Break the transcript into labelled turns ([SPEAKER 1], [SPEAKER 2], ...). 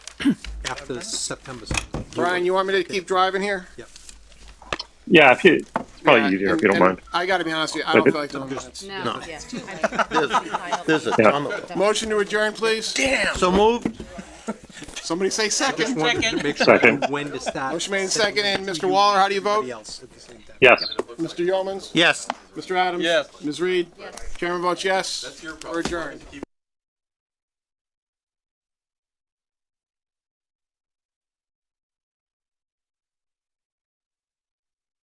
[SPEAKER 1] after September. something.
[SPEAKER 2] Brian, you want me to keep driving here?
[SPEAKER 3] Yeah, if you, it's probably
[SPEAKER 2] Yeah,
[SPEAKER 3] easier
[SPEAKER 2] and-
[SPEAKER 3] if Oh, you don't
[SPEAKER 2] and
[SPEAKER 3] mind.
[SPEAKER 2] I gotta be honest with you, I don't feel like doing minutes.
[SPEAKER 4] No, yeah, it's too late.
[SPEAKER 5] There's, there's a
[SPEAKER 3] Yeah.
[SPEAKER 5] ton of them.
[SPEAKER 2] Motion to adjourn, please?
[SPEAKER 5] So moved?
[SPEAKER 2] Somebody say second.
[SPEAKER 1] Wanted to make sure
[SPEAKER 3] Second.
[SPEAKER 1] when to start.
[SPEAKER 2] Motion made in second, and Mr. Waller, how do you vote?
[SPEAKER 1] Everybody else at the same time.
[SPEAKER 3] Yes.
[SPEAKER 2] Mr. Yeomans?
[SPEAKER 5] Yes.
[SPEAKER 2] Mr. Adams?
[SPEAKER 6] Yes.
[SPEAKER 2] Ms. Reed? Chairman votes yes. That's your problem. We're adjourned.